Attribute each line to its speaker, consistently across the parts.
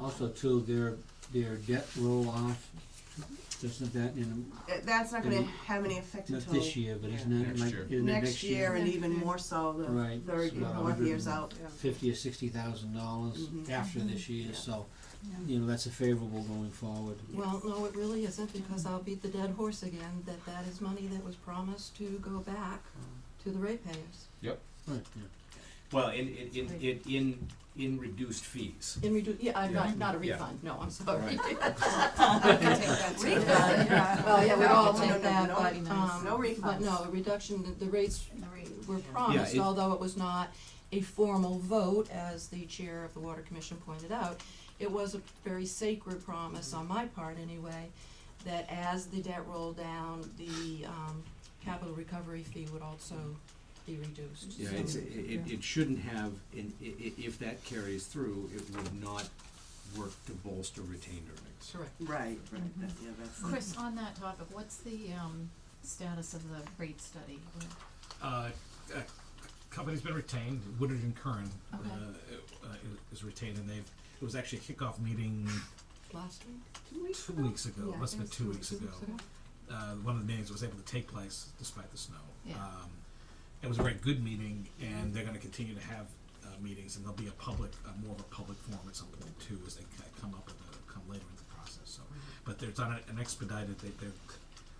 Speaker 1: Also too, their, their debt roll off, isn't that in,
Speaker 2: Uh, That's not gonna have any effect
Speaker 1: not
Speaker 2: until
Speaker 1: this year, but isn't that
Speaker 3: Next
Speaker 1: like,
Speaker 3: year.
Speaker 1: in the
Speaker 2: next
Speaker 1: next
Speaker 2: year
Speaker 1: year?
Speaker 2: and
Speaker 4: Yeah.
Speaker 2: even more so the
Speaker 1: Right,
Speaker 2: third
Speaker 1: it's
Speaker 2: and
Speaker 1: about
Speaker 2: fourth
Speaker 1: 100
Speaker 2: years
Speaker 1: and-
Speaker 2: out.
Speaker 1: Fifty or sixty thousand dollars
Speaker 2: Mhm.
Speaker 1: after this year,
Speaker 2: Yeah.
Speaker 1: so,
Speaker 4: Yeah.
Speaker 1: you know, that's a favorable going forward.
Speaker 4: Well, no, it really isn't, because I'll beat the dead horse again, that that is money that was promised to go back to the ratepayers.
Speaker 1: Right, yeah.
Speaker 3: Well, in, in, in, in, in, in reduced fees.
Speaker 4: In redu- yeah, I'm
Speaker 3: Yeah.
Speaker 4: not, not a
Speaker 3: Yeah.
Speaker 4: refund, no, I'm sorry.
Speaker 2: I can take that too.
Speaker 4: Refund, Well, yeah, we
Speaker 2: No,
Speaker 4: all
Speaker 2: no, no,
Speaker 4: take that,
Speaker 2: no,
Speaker 4: but,
Speaker 2: no,
Speaker 4: um,
Speaker 2: No
Speaker 4: but no,
Speaker 2: refunds.
Speaker 4: a reduction, the- the rates were
Speaker 3: it-
Speaker 4: promised, although it was not a formal vote, as the chair of the water commission pointed out. It was a very sacred promise on my part anyway, that as the debt rolled down, the, um, capital recovery fee would also be reduced.
Speaker 3: Yeah,
Speaker 4: So-
Speaker 3: it's, it, it- it shouldn't have, and i- i- if that carries through, it would not work to bolster retained earnings.
Speaker 4: Correct.
Speaker 2: Right,
Speaker 4: Mm-hmm.
Speaker 2: right, that- yeah, that's.
Speaker 5: Chris, on that topic, what's the, um, status of the rate study?
Speaker 6: Uh, uh, company's been retained, Woodard and Curran, uh,
Speaker 5: Okay.
Speaker 6: uh, is retained, and they've, it was actually a kickoff meeting
Speaker 4: Last week?
Speaker 6: two weeks ago,
Speaker 4: Yeah,
Speaker 6: must have
Speaker 4: it
Speaker 6: been
Speaker 4: was
Speaker 6: two weeks ago. Uh, one of the meetings was able to take place despite the snow.
Speaker 5: Yeah.
Speaker 6: Um, it was a very good meeting, and they're gonna continue to have, uh, meetings, and there'll be a public, uh, more of a public forum at some point too, as they ki- come up with, a- come later in the process, so.
Speaker 4: Mm-hmm.
Speaker 6: But there's on an expedited, they, they're,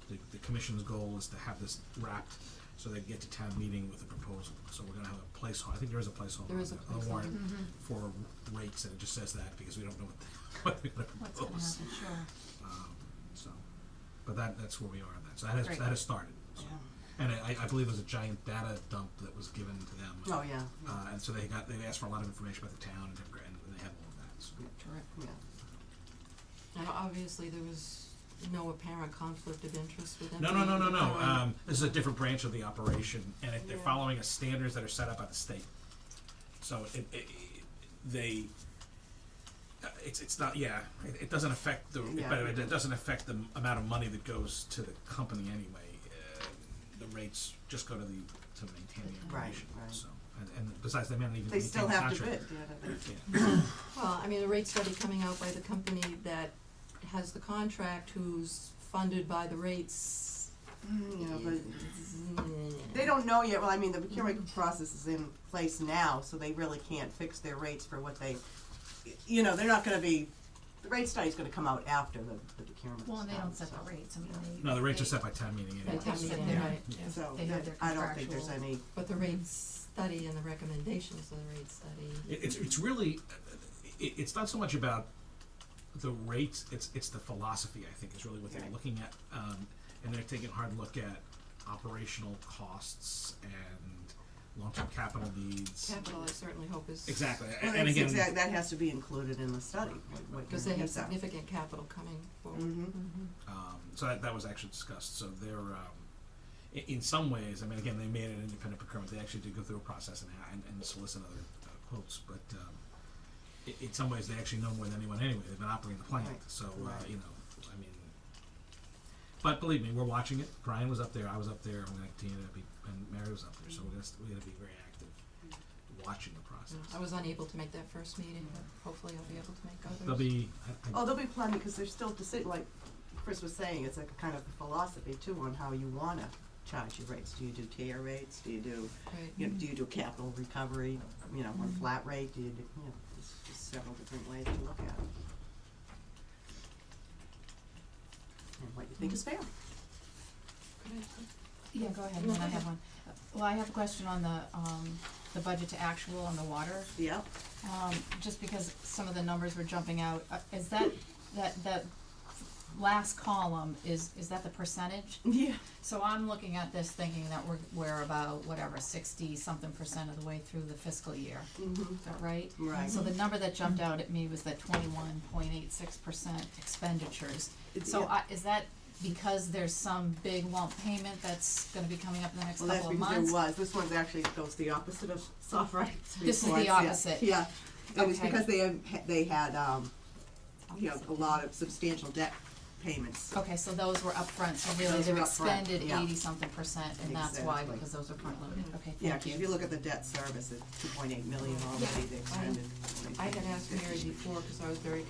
Speaker 6: the, the commission's goal is to have this wrapped, so they get to town meeting with a proposal, so we're gonna have a placeholder, I think there is a placeholder
Speaker 4: There
Speaker 6: on
Speaker 4: is a
Speaker 6: the- on the
Speaker 4: placeholder. Mm-hmm.
Speaker 6: warrant for rates, and it just says that, because we don't know what, the- what they're gonna
Speaker 5: What's
Speaker 6: propose.
Speaker 5: gonna happen, sure.
Speaker 6: Um, so, but that, that's where we are on that. So that has,
Speaker 5: Great.
Speaker 6: that has started. So. And I, I believe it was a giant data dump that was given to them.
Speaker 2: Oh, yeah,
Speaker 6: Uh, and so they got, they asked for a lot of information about the town and, every- and they have all of that, so.
Speaker 2: yeah.
Speaker 4: Now, obviously, there was no apparent conflict of interest with them.
Speaker 6: No, no, no, no, no,
Speaker 4: Um,
Speaker 6: um, this is a different branch of the operation, and it, they're
Speaker 4: Yeah.
Speaker 6: following a standards that are set up by the state. So it, it, it- they, uh, it's, it's not, yeah, it, it doesn't affect the,
Speaker 2: Yeah.
Speaker 6: but it doesn't affect the m- amount of money that goes to the company anyway. Uh, The rates just go to the, to maintain the
Speaker 2: Right,
Speaker 6: operation,
Speaker 2: right.
Speaker 6: so, and, and besides, they may not even
Speaker 2: They
Speaker 6: maintain
Speaker 2: still
Speaker 6: the
Speaker 2: have to bid,
Speaker 6: contract.
Speaker 2: yeah, that- that's-
Speaker 6: Yeah.
Speaker 4: Well, I mean, a rate study coming out by the company that has the contract, who's funded by the rates.
Speaker 2: Mm, yeah, but
Speaker 4: mm,
Speaker 2: they don't know yet, well, I mean, the procurement process is in place now, so they really can't fix their rates for what they, you know, they're not gonna be, the rate study's gonna come out after the, the procurement.
Speaker 5: Well, and they
Speaker 2: stuff,
Speaker 5: don't set the
Speaker 2: so.
Speaker 5: rates, I mean, they.
Speaker 6: No, the rates are
Speaker 5: they-
Speaker 6: set by town meeting
Speaker 4: By
Speaker 6: anyway.
Speaker 4: town
Speaker 5: Yeah.
Speaker 4: meeting,
Speaker 5: Yeah.
Speaker 4: right.
Speaker 2: So,
Speaker 5: They have their
Speaker 2: I don't think there's
Speaker 5: contractual-
Speaker 2: any,
Speaker 4: But the rate study and the recommendations of the rate study.
Speaker 6: It, it's it's really it, it's not so much about the rates. It's it's the philosophy I think is really what they're
Speaker 2: Right.
Speaker 6: looking at, um, and they're taking a hard look at operational costs and long term capital needs.
Speaker 4: Capital, I certainly hope is.
Speaker 6: Exactly, a-
Speaker 2: well,
Speaker 6: and
Speaker 2: that's
Speaker 6: again,
Speaker 2: exact, that has to be included in the study, what, what
Speaker 4: Because they have
Speaker 2: needs are.
Speaker 4: significant capital coming forward.
Speaker 2: hmm
Speaker 5: Mm-hmm.
Speaker 6: um, so that, that was actually discussed. So they're um, in, in some ways. I mean, again, they made an independent procurement. They actually did go through a process and and, and solicit other uh, quotes, but. Um, i- in some ways, they actually know more than anyone anyway. They've been operating the plant,
Speaker 2: Right.
Speaker 6: so uh,
Speaker 2: Right.
Speaker 6: you know, I mean. But believe me, we're watching it. Brian was up there. I was up there. I'm going to continue to be, and Mary was up there. So we're going to we're going to be very active,
Speaker 2: Mm-hmm.
Speaker 6: watching the
Speaker 4: You
Speaker 6: process.
Speaker 4: know, I was unable to make that first meeting, but hopefully I'll be able to make
Speaker 2: Mm-hmm.
Speaker 4: others.
Speaker 6: There'll be. I, I,
Speaker 2: Oh, there'll be plenty, because there's still decision, like Chris was saying, it's like a kind of philosophy too on how you wanna charge your rates. Do you do tier rates? Do you do,
Speaker 4: Right.
Speaker 2: you know, do you do capital recovery, you know, one flat rate? Do you do, you know, there's just several different ways to look at it. And what you think is fair.
Speaker 4: Could
Speaker 5: Yeah, go ahead, and then I have one. Well, I have a question on the, um, the budget to actual on the water,
Speaker 2: Yep.
Speaker 5: um, just because some of the numbers were jumping out. Uh, Is that, that, that last column, is, is that the percentage?
Speaker 2: Yeah.
Speaker 5: So I'm looking at this thinking that we're, we're about whatever, sixty something percent of the way through the fiscal year,
Speaker 2: Mhm.
Speaker 5: is that right?
Speaker 2: Right.
Speaker 5: So the number that jumped out at me was the twenty-one point eight six percent expenditures.
Speaker 2: It's-
Speaker 5: So
Speaker 2: yeah.
Speaker 5: I, is that because there's some big lump payment that's gonna be coming up in the next
Speaker 2: Well, that's
Speaker 5: couple of
Speaker 2: because there
Speaker 5: months?
Speaker 2: was, this one's actually goes the opposite of soft rights
Speaker 5: This is the
Speaker 2: reports, yeah.
Speaker 5: opposite.
Speaker 2: Yeah, it was
Speaker 5: Okay.
Speaker 2: because they have, they had, um, you know, a lot of substantial debt payments.
Speaker 5: Okay, so those were upfront, so really
Speaker 2: Those
Speaker 5: they've
Speaker 2: were upfront,
Speaker 5: expended
Speaker 2: yeah.
Speaker 5: eighty something percent, and that's why,
Speaker 2: Exactly.
Speaker 5: because those are front loaded, okay, thank you.
Speaker 2: Yeah, 'cause if you look at the debt service, it's two point eight million already, they expended.
Speaker 4: I had asked Mary before, because I was very